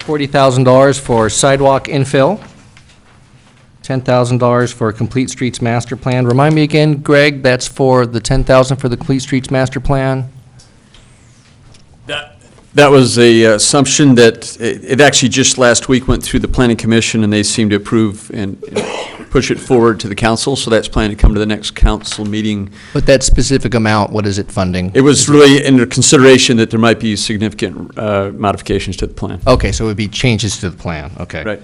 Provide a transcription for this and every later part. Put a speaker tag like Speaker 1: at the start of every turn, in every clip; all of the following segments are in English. Speaker 1: $40,000 for sidewalk infill, $10,000 for Complete Streets Master Plan. Remind me again, Greg, that's for the $10,000 for the Complete Streets Master Plan?
Speaker 2: That that was a uh, assumption that, it it actually just last week went through the planning commission, and they seemed to approve and and push it forward to the council, so that's planned to come to the next council meeting.
Speaker 1: But that specific amount, what is it funding?
Speaker 2: It was really under consideration that there might be significant uh, modifications to the plan.
Speaker 1: Okay, so it would be changes to the plan, okay.
Speaker 2: Right.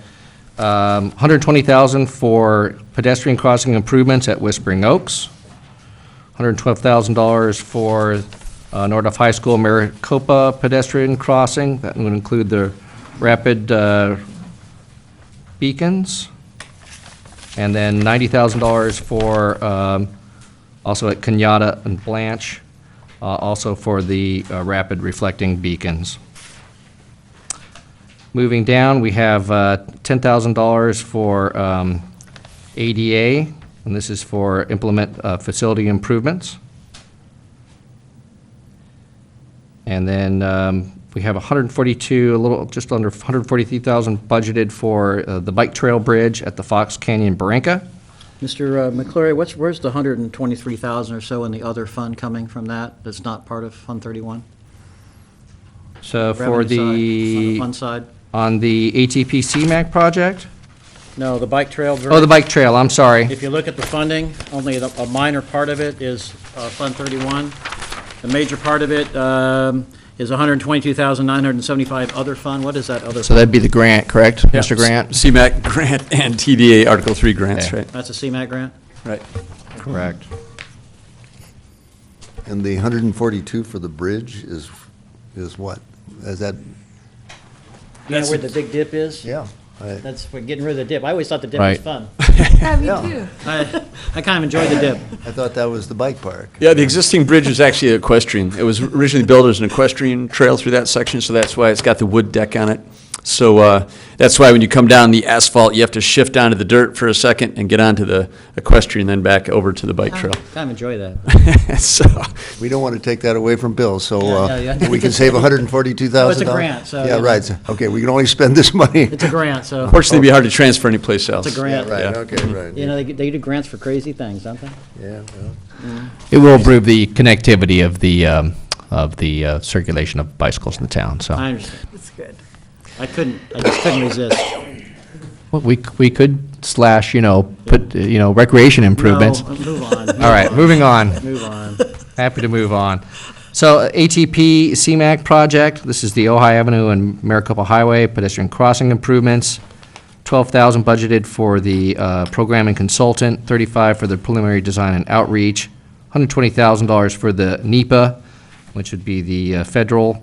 Speaker 1: Um, 120,000 for pedestrian crossing improvements at Whispering Oaks, $112,000 for uh, Nordoff High School Maricopa pedestrian crossing, that would include the rapid uh, beacons, and then $90,000 for, um, also at Kenyatta and Blanche, uh, also for the uh, rapid reflecting beacons. Moving down, we have uh, $10,000 for um, ADA, and this is for implement uh, facility improvements. And then um, we have 142, a little, just under 143,000 budgeted for uh, the bike trail bridge at the Fox Canyon Barranca.
Speaker 3: Mr. uh, McCleary, what's, where's the 123,000 or so in the other fund coming from that, that's not part of Fund 31?
Speaker 1: So for
Speaker 3: Revenue side, on
Speaker 1: the,
Speaker 3: fund side?
Speaker 1: on the ATP CMAC project?
Speaker 3: No, the bike trail.
Speaker 1: Oh, the bike trail, I'm sorry.
Speaker 3: If you look at the funding, only the- a minor part of it is uh, Fund 31. The major part of it um, is 122,975 other fund. What is that other?
Speaker 1: So
Speaker 3: fund?
Speaker 1: that'd be the grant, correct, Mr. Grant?
Speaker 2: CMAC grant and TDA Article 3 grants,
Speaker 1: Yeah.
Speaker 2: right?
Speaker 3: That's a CMAC grant?
Speaker 2: Right.
Speaker 1: Correct.
Speaker 4: And the 142 for the bridge is, is what? Is that?
Speaker 3: You know
Speaker 2: That's-
Speaker 3: where the big dip is?
Speaker 4: I-
Speaker 3: That's for getting rid of the dip. I always thought the dip
Speaker 1: Right.
Speaker 3: was fun.
Speaker 5: Yeah, me
Speaker 4: Yeah.
Speaker 5: too.
Speaker 3: I I kind of enjoyed the dip.
Speaker 4: I thought that was the bike park.
Speaker 2: Yeah, the existing bridge is actually equestrian. It was originally built as an equestrian trail through that section, so that's why it's got the wood deck on it. So uh, that's why when you come down the asphalt, you have to shift onto the dirt for a second and get onto the equestrian, then back over to the bike trail.
Speaker 3: Kind of enjoy that. Uh-huh.
Speaker 2: So,
Speaker 4: We don't want to take that away from Bill, so
Speaker 3: Yeah,
Speaker 4: uh,
Speaker 3: yeah, yeah.
Speaker 4: we can save $142,000.
Speaker 3: Well, it's a grant, so,
Speaker 4: Yeah,
Speaker 3: you
Speaker 4: right, so- okay, we can only spend this money.
Speaker 3: It's a grant, so,
Speaker 2: fortunately, it'd be hard to transfer anyplace else.
Speaker 3: It's a grant.
Speaker 4: Right,
Speaker 2: Yeah.
Speaker 4: okay, right.
Speaker 3: you know, they they do grants for crazy things, don't they?
Speaker 1: Oh.
Speaker 4: Yeah, well,
Speaker 1: It will improve the connectivity of the, um, of the uh, circulation of bicycles in the town,
Speaker 3: I
Speaker 1: so.
Speaker 3: understand.
Speaker 5: That's good.
Speaker 3: I couldn't, I just couldn't resist.
Speaker 1: Well, We, c- we could slash, you know, put, uh, you know, recreation improvements.
Speaker 3: No, move on.
Speaker 1: All right, moving on.
Speaker 3: Move on.
Speaker 1: Happy to move on. So ATP CMAC project, this is the Ojai Avenue and Maricopa Highway pedestrian crossing improvements. Twelve thousand budgeted for the uh, programming consultant, thirty-five for the preliminary design and outreach, hundred twenty thousand dollars for the NEPA, which would be the uh, federal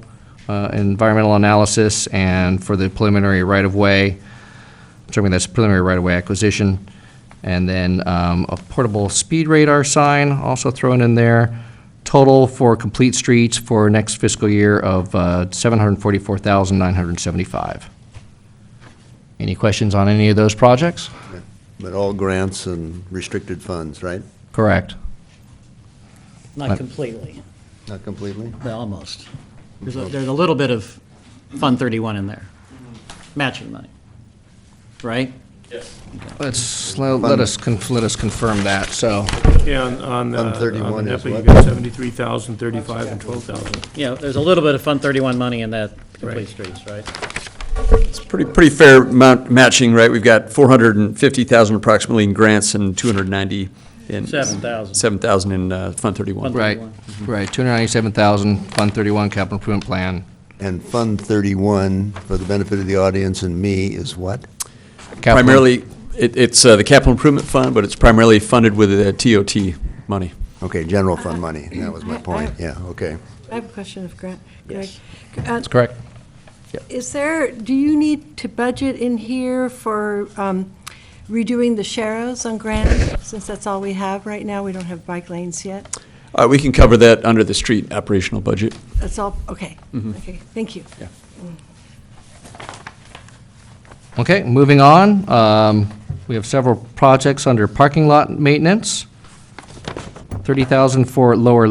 Speaker 1: uh, environmental analysis, and for the preliminary right-of-way, determining that's preliminary right-of-way acquisition. And then um, a portable speed radar sign also thrown in there. Total for complete streets for next fiscal year of uh, $744,975. Any questions on any of those projects?
Speaker 4: But all grants and restricted funds, right?
Speaker 1: Correct.
Speaker 3: Not completely,
Speaker 4: Not completely?
Speaker 3: but almost. There's a, there's a little bit of Fund 31 in there, matching money, right?
Speaker 1: Let's, let us, con- let us confirm that, so.
Speaker 6: Yeah, on, on,
Speaker 4: On
Speaker 6: uh, on
Speaker 4: 31
Speaker 6: the
Speaker 4: is
Speaker 6: NEPA, you
Speaker 4: what?
Speaker 6: got 73,000, 35, and 12,000.
Speaker 3: You know, there's a little bit of Fund 31 money in that complete streets, right?
Speaker 2: It's pretty, pretty fair amount matching, right? We've got 450,000 approximately in grants and 290 in.
Speaker 3: 7,000.
Speaker 2: 7,000 in uh, Fund 31.
Speaker 3: Fund
Speaker 1: Right, right, 297,000, Fund 31 Capital Improvement Plan,
Speaker 4: And Fund 31, for the benefit of the audience and me, is what?
Speaker 1: Capital-
Speaker 2: Primarily, it, it's uh, the capital improvement fund, but it's primarily funded with uh, the TOT money.
Speaker 4: Okay, general fund money, that was my point, yeah, okay.
Speaker 5: I have a question of Grant.
Speaker 3: Yes.
Speaker 5: Greg. Uh,
Speaker 1: That's correct.
Speaker 5: Is there, do you need to budget in here for um, redoing the sharrows on Grant? Since that's all we have right now, we don't have bike lanes yet.
Speaker 2: Uh, we can cover that under the street operational budget.
Speaker 5: That's all, okay. Okay, thank you.
Speaker 1: Okay, moving on, um, we have several projects under parking lot maintenance. Thirty thousand for lower